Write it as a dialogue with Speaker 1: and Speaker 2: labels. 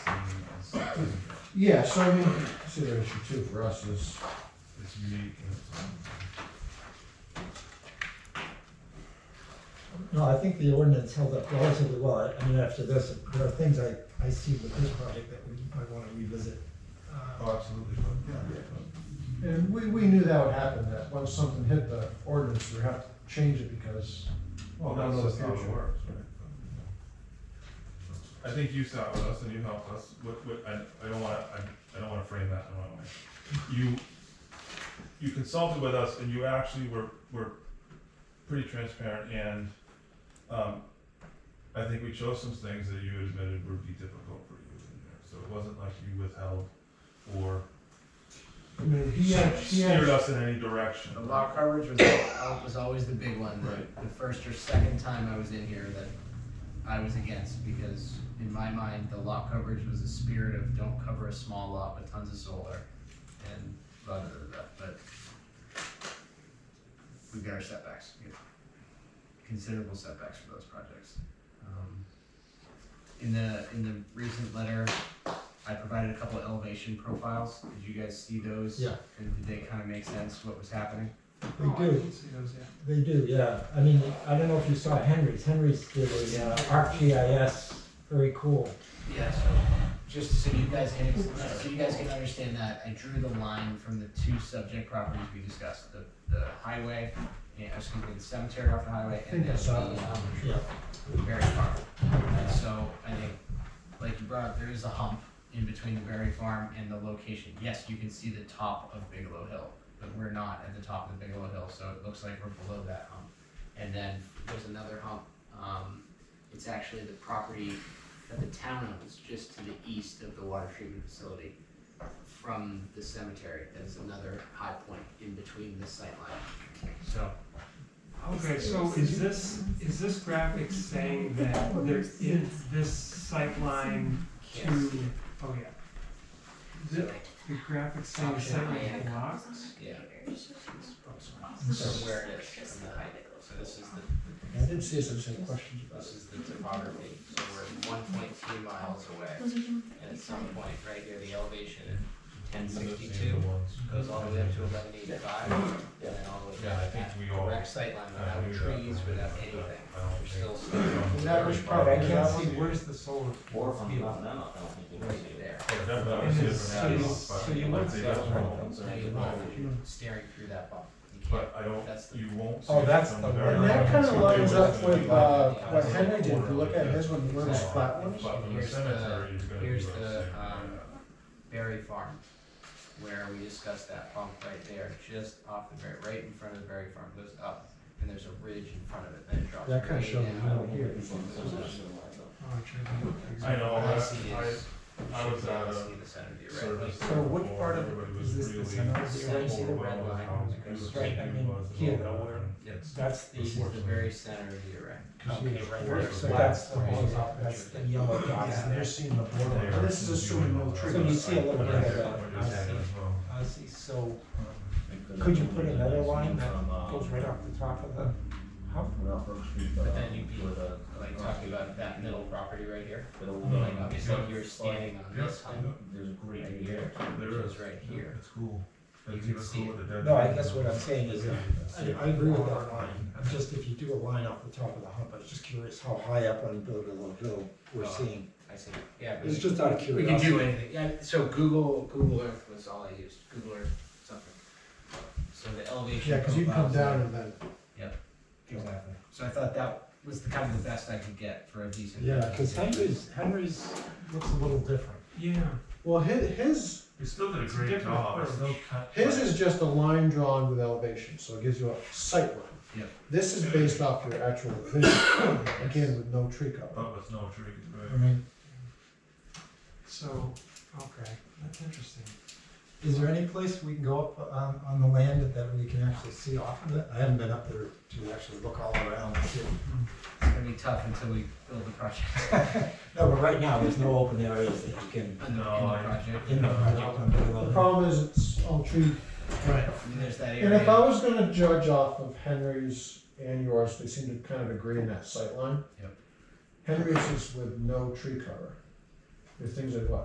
Speaker 1: Yeah, so I mean, consideration too for us is,
Speaker 2: It's me.
Speaker 3: No, I think the ordinance held up relatively well. I- I mean, after this, there are things I, I see with this project that we might want to revisit. Uh,
Speaker 2: Oh, absolutely, but, yeah.
Speaker 1: and we, we knew that would happen, that once something hit the ordinance, we'd have to change it because.
Speaker 2: Well,
Speaker 1: Well,
Speaker 2: that's
Speaker 1: no,
Speaker 2: just how it
Speaker 1: future.
Speaker 2: works, right? I think you sat with us and you helped us, what, what, I, I don't wanna, I, I don't wanna frame that in the wrong way. You, you consulted with us and you actually were, were pretty transparent and, um, I think we chose some things that you admitted would be difficult for you in there, so it wasn't like you withheld or
Speaker 1: I mean, he had, he
Speaker 2: steered
Speaker 1: had,
Speaker 2: us in any direction.
Speaker 4: The lot coverage was, al- was always the big one, the, the first or second time I was in here that I was against, because in my mind, the lot coverage was a spirit of don't cover a small lot with tons of solar, and blah, blah, blah, blah, but we've got our setbacks, we have considerable setbacks for those projects. Um, In the, in the recent letter, I provided a couple of elevation profiles, did you guys see those?
Speaker 3: Yeah.
Speaker 4: And did they kinda make sense, what was happening?
Speaker 3: They do,
Speaker 4: see those yet.
Speaker 3: they do, yeah. I mean, I don't know if you saw Henry's. Henry's did a uh, ArcGIS, very cool.
Speaker 4: Yeah, so just so you guys can, so you guys can understand that, I drew the line from the two subject properties we discussed, the, the highway, and, excuse me, the cemetery off the highway, and then
Speaker 1: I
Speaker 4: the,
Speaker 1: saw
Speaker 4: um,
Speaker 3: Yeah.
Speaker 4: very farm. And so, I think, like you brought up, there is a hump in between the Berry Farm and the location. Yes, you can see the top of Bigelow Hill, but we're not at the top of the Bigelow Hill, so it looks like we're below that hump. And then there's another hump, um, it's actually the property that the town owns, just to the east of the water treatment facility from the cemetery, that's another high point in between the sightline. So,
Speaker 5: Okay, so is this, is this graphic saying that there is this sightline to,
Speaker 4: yes,
Speaker 5: oh yeah. The, the graphic saying sightline blocks?
Speaker 4: yeah. So
Speaker 3: So
Speaker 4: where it is, so this is the
Speaker 1: I did see some same questions about
Speaker 4: This is the topography, so we're one point two miles away, and at some point, right here, the elevation at ten
Speaker 2: The
Speaker 4: sixty-two
Speaker 2: ones.
Speaker 4: goes all the way up to eleven eighty-five, and then all the way
Speaker 2: Yeah, I
Speaker 4: back.
Speaker 2: think
Speaker 4: at
Speaker 2: we
Speaker 4: the
Speaker 2: all
Speaker 4: Direct sightline
Speaker 2: I
Speaker 4: without
Speaker 2: knew that
Speaker 4: trees,
Speaker 2: when we
Speaker 4: without
Speaker 2: looked at
Speaker 4: anything,
Speaker 2: that. I don't
Speaker 4: we're
Speaker 2: think-
Speaker 4: still
Speaker 1: That was probably-
Speaker 5: I can't see, where's the solar
Speaker 6: Or from
Speaker 5: field?
Speaker 6: Mount Memo, I don't think you can see
Speaker 4: right
Speaker 6: it.
Speaker 4: there.
Speaker 2: Definitely, I
Speaker 5: And
Speaker 2: see it
Speaker 5: it's-
Speaker 2: from that
Speaker 5: so you-
Speaker 2: angle, but
Speaker 5: so you
Speaker 2: like
Speaker 5: won't
Speaker 2: they
Speaker 5: see
Speaker 2: got
Speaker 5: it.
Speaker 2: problems
Speaker 4: Now
Speaker 2: there.
Speaker 4: you look, you're staring through that bump, you can't,
Speaker 2: But I don't,
Speaker 4: that's the.
Speaker 2: you won't see.
Speaker 1: Oh,
Speaker 2: it
Speaker 5: that's
Speaker 2: from
Speaker 5: the
Speaker 2: the
Speaker 5: one.
Speaker 2: very
Speaker 1: And that
Speaker 2: end.
Speaker 1: kinda
Speaker 2: So they
Speaker 1: lines
Speaker 2: were
Speaker 1: up
Speaker 2: gonna
Speaker 1: with,
Speaker 2: be
Speaker 1: uh,
Speaker 2: like-
Speaker 1: what Henry did, if you look at his one, he
Speaker 2: But
Speaker 1: learns flat ones.
Speaker 2: from the
Speaker 4: Here's the-
Speaker 2: cemetery, you're gonna be
Speaker 4: here's
Speaker 2: like
Speaker 4: the,
Speaker 2: saying,
Speaker 4: um,
Speaker 2: yeah.
Speaker 4: Berry Farm, where we discussed that bump right there, just off the berry, right in front of the berry farm, goes up, and there's a ridge in front of it, then it drops
Speaker 1: That kinda
Speaker 4: way
Speaker 1: shows the
Speaker 4: down.
Speaker 1: middle here.
Speaker 5: Oh, I'm trying to look for
Speaker 2: I know,
Speaker 4: All I
Speaker 2: I,
Speaker 4: see is,
Speaker 2: I, I was at
Speaker 4: I
Speaker 2: a
Speaker 4: see the center view, right?
Speaker 2: service
Speaker 4: Like,
Speaker 2: there
Speaker 5: So what
Speaker 2: before,
Speaker 5: part of-
Speaker 2: everybody was
Speaker 5: is this the
Speaker 2: really
Speaker 5: center of the
Speaker 4: area? See the red
Speaker 2: overwhelmed with
Speaker 4: line?
Speaker 2: how
Speaker 4: Like,
Speaker 2: beautiful
Speaker 5: right, I
Speaker 2: it
Speaker 5: mean,
Speaker 2: was and
Speaker 5: here,
Speaker 2: all that.
Speaker 5: nowhere.
Speaker 4: Yep.
Speaker 5: That's the,
Speaker 4: This is the very center of the array.
Speaker 1: Okay, right
Speaker 2: there.
Speaker 1: So
Speaker 3: that's the
Speaker 4: Right.
Speaker 3: one, that's the yellow dots
Speaker 5: Yeah.
Speaker 3: there.
Speaker 1: They're seeing the
Speaker 2: They
Speaker 1: border.
Speaker 2: are
Speaker 1: This is assuming no
Speaker 2: consuming
Speaker 1: trees.
Speaker 3: So you see a
Speaker 2: all
Speaker 3: little
Speaker 2: that.
Speaker 3: bit of
Speaker 2: But I get
Speaker 3: that.
Speaker 2: what you're saying as well.
Speaker 3: I see, so could you put another line that goes right off the top of the, how,
Speaker 4: But then you'd be, Like talking about that middle property right here, like obviously you're standing on
Speaker 2: Yeah,
Speaker 4: this
Speaker 2: I
Speaker 4: hump
Speaker 2: know.
Speaker 6: There's a great
Speaker 4: right
Speaker 6: view.
Speaker 4: here, which
Speaker 2: There is.
Speaker 4: is right here.
Speaker 2: It's cool.
Speaker 4: You
Speaker 2: It's
Speaker 4: can
Speaker 2: even
Speaker 4: see
Speaker 2: cool with the dead.
Speaker 3: no, I
Speaker 2: trees.
Speaker 3: guess what I'm saying is that I, I agree with that line, I'm just if you do a line off the top of the hump, I was just curious how high up on Bigelow Hill we're seeing.
Speaker 4: I see, yeah. but
Speaker 3: It's just out of
Speaker 4: We can
Speaker 3: curiosity.
Speaker 4: do anything, yeah, so Google, Google Earth was all I used, Google Earth something. So the elevation.
Speaker 1: Yeah, cause you come
Speaker 4: profiles there.
Speaker 1: down and then.
Speaker 4: Yep.
Speaker 1: Exactly.
Speaker 4: So I thought that was the kind of the best I could get for a decent.
Speaker 3: Yeah, because Henry's, Henry's looks a little different.
Speaker 5: yeah,
Speaker 1: Well, his, his,
Speaker 2: We still did a
Speaker 5: It's a
Speaker 2: great
Speaker 5: different
Speaker 2: job. It's
Speaker 5: approach.
Speaker 2: still cut-
Speaker 1: his is just a line drawn with elevation, so it gives you a sight line.
Speaker 4: Yep.
Speaker 1: This is based off your actual vision, again, with no tree cover.
Speaker 2: But with no trees,
Speaker 3: I
Speaker 2: right?
Speaker 3: mean,
Speaker 5: so, okay, that's interesting.
Speaker 3: is there any place we can go up on, on the land that we can actually see off of it? I haven't been up there to actually look all around and see.
Speaker 4: It's gonna be tough until we build the project.
Speaker 3: No, but right now, there's no open areas that you can,
Speaker 4: in the-
Speaker 2: No,
Speaker 4: in the
Speaker 2: I-
Speaker 4: project.
Speaker 3: in the project on Bigelow.
Speaker 1: The
Speaker 3: Hill.
Speaker 1: problem is it's all tree.
Speaker 3: Right.
Speaker 4: I mean, there's that
Speaker 1: And
Speaker 4: area.
Speaker 1: if I was gonna judge off of Henry's and yours, they seem to kind of agree in that sight line.
Speaker 4: Yep.
Speaker 1: Henry's is with no tree cover. The things like what,